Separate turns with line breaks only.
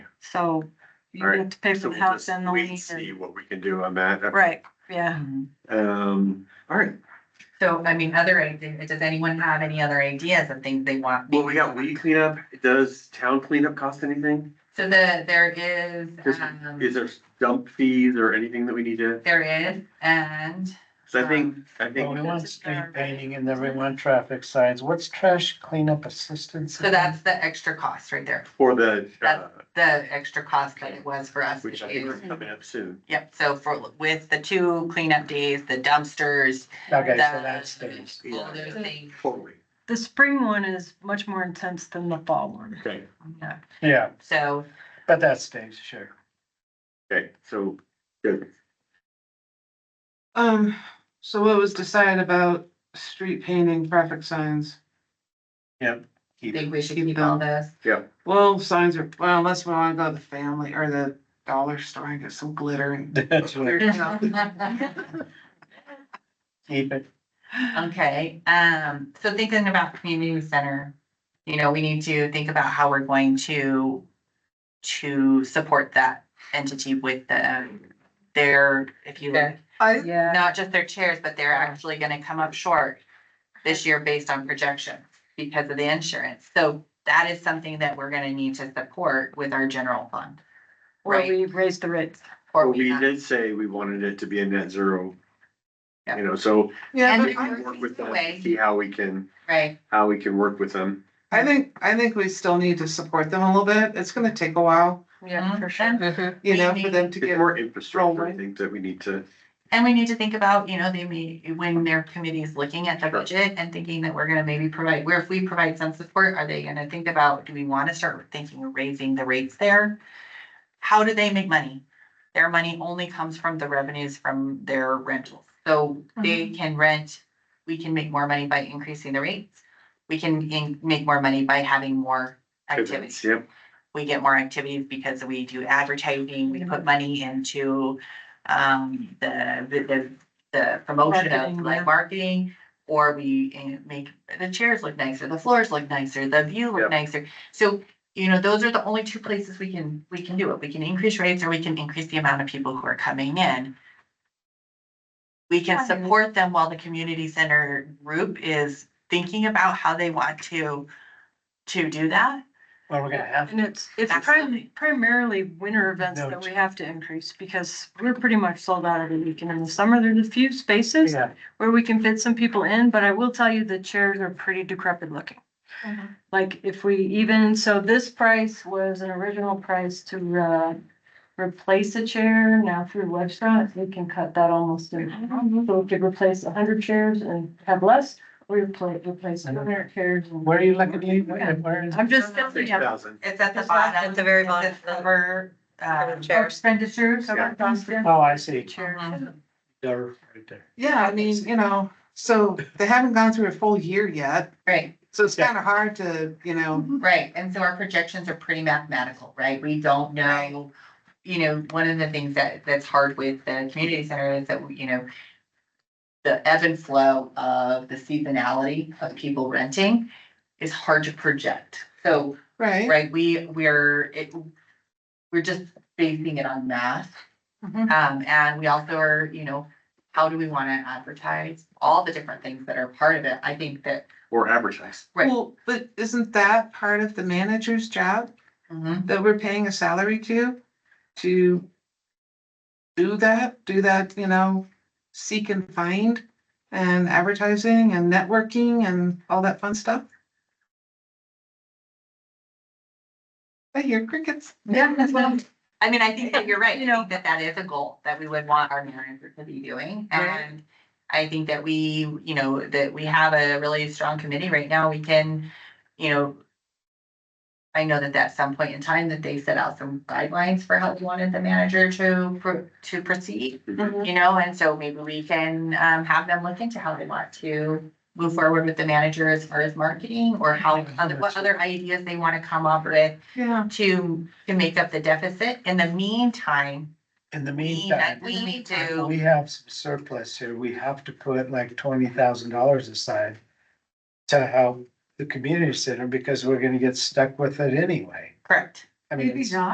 So you
All right,
have to pay for
So
the
we'll
house
just
and the
wait and
land.
See
and-
what we can do on that.
Right, yeah.
Um, all right,
So, I mean, other, idea- does anyone have any other ideas of things they want?
well, we got weed cleanup. Does town cleanup cost anything?
So the, there is,
Is,
um,
is there dump fees or anything that we need to,
there is, and,
cause I think, I think.
Well, we want street painting and then we want traffic signs. What's trash cleanup assistance?
so that's the extra cost right there.
For the, uh,
The extra cost that it was for us to
which I think
do.
is coming up soon.
Yep, so for, with the two cleanup days, the dumpsters,
Okay, so
the,
that stays.
all those things.
Totally.
The spring one is much more intense than the fall one.
Okay,
yeah.
Yeah,
So,
but that stays, sure.
okay, so, good.
Um, so what was decided about street painting, traffic signs?
I think we should
Keep
keep all this.
Well, signs are, well, unless we wanna go to the family or the dollar store and get some glitter and.
That's what, keep it.
Okay, um, so thinking about community center, you know, we need to think about how we're going to. To support that entity with the, their, if you, look,
I,
Yeah.
not just their chairs, but they're actually gonna come up short. This year based on projection because of the insurance, so that is something that we're gonna need to support with our general fund.
Where we raise the rates.
Or
Well,
we
we
have-
did say we wanted it to be a net zero.
Yeah.
You know, so
yeah,
And
but
we can
I-
work with them,
Way.
see how we can,
right,
how we can work with them.
I think, I think we still need to support them a little bit. It's gonna take a while,
Mm-hmm.
Yeah, for sure.
Mhm.
you
We
know, for
need-
them to
It's
get.
more infrastructure, I
Rolling.
think, that we need to.
And we need to think about, you know, they may, when their committee is looking at the
Sure.
budget and thinking that we're gonna maybe provide, where if we provide some support, are they gonna think about, do we wanna start thinking of raising the rates there? How do they make money? Their money only comes from the revenues from their rentals, so they can rent, we can make more money by increasing the rates. We can in- make more money by having more activities
Yep.
we get more activities because we do advertising, we
Mm-hmm.
put money into um, the, the- the, the promotion of
Marketing, yeah.
like marketing. Or we eh, make the chairs look nicer, the floors look nicer, the view
Yeah.
look nicer. So, you know, those are the only two places we can, we can do it. We can increase rates or we can increase the amount of people who are coming in. We can
Right.
support them while the community center group is thinking about how they want to, to do that.
Well, we're gonna have,
And it's, it's
Absolutely.
prim- primarily winter events that we have to increase because we're pretty much sold out every weekend. In the summer, there's a few spaces
yeah,
where we can fit some people in, but I will tell you the chairs are pretty decrepit looking. Mm-hmm. like if we even, so this price was an original price to uh. Replace a chair now through Webshot, we can cut that almost in. half. So we could replace hundred chairs and have less, or replace, replace two hundred chairs. and-
where are you looking, Lee? Where where is?
I'm just
Three
thinking of.
thousand.
It's at the
It's not-
bottom.
at the very
It
bottom.
says Over, uh,
Chairs.
expenditures.
Yeah.
Oh, I see,
Chairs.
Mhm.
there, right there.
Yeah, I mean, you know, so they haven't gone through a full year yet,
Right,
so it's
Yeah.
kinda hard to, you know.
right. And so our projections are pretty mathematical, right? We don't know. You know, one of the things that, that's hard with the community center is that, you know, the ebb and flow of the seasonality of people renting is hard to project. So,
Right.
right, we, we're, it, we're just basing it on math.
Mhm.
Um, and we also are, you know, how do we wanna advertise, all the different things that are part of it, I think that.
Or advertise.
Right.
Well, but isn't that part of the manager's job? that we're paying a salary to, to do that, do that, you know, seek and find and advertising and networking and all that fun stuff. I hear crickets.
Yeah, that's what I'm, I mean, I think that you're right,
You
you
know.
know, that that is a goal that we would want our manager to be doing,
Right.
and. I think that we, you know, that we have a really strong committee right now, we can, you know. I know that at some point in time that they set out some guidelines for how we wanted the manager to, pro- to proceed. you know, and so maybe we can um have them look into how they want to move forward with the manager as far as marketing or how, other what other ideas they want to come up with
Yeah.
to to make up the deficit. In the meantime,
In the
we
meantime.
we need
We
to,
have some surplus here. We have to put like twenty thousand dollars aside to help the community center because we're gonna get stuck with it anyway.
correct.
I mean, it's-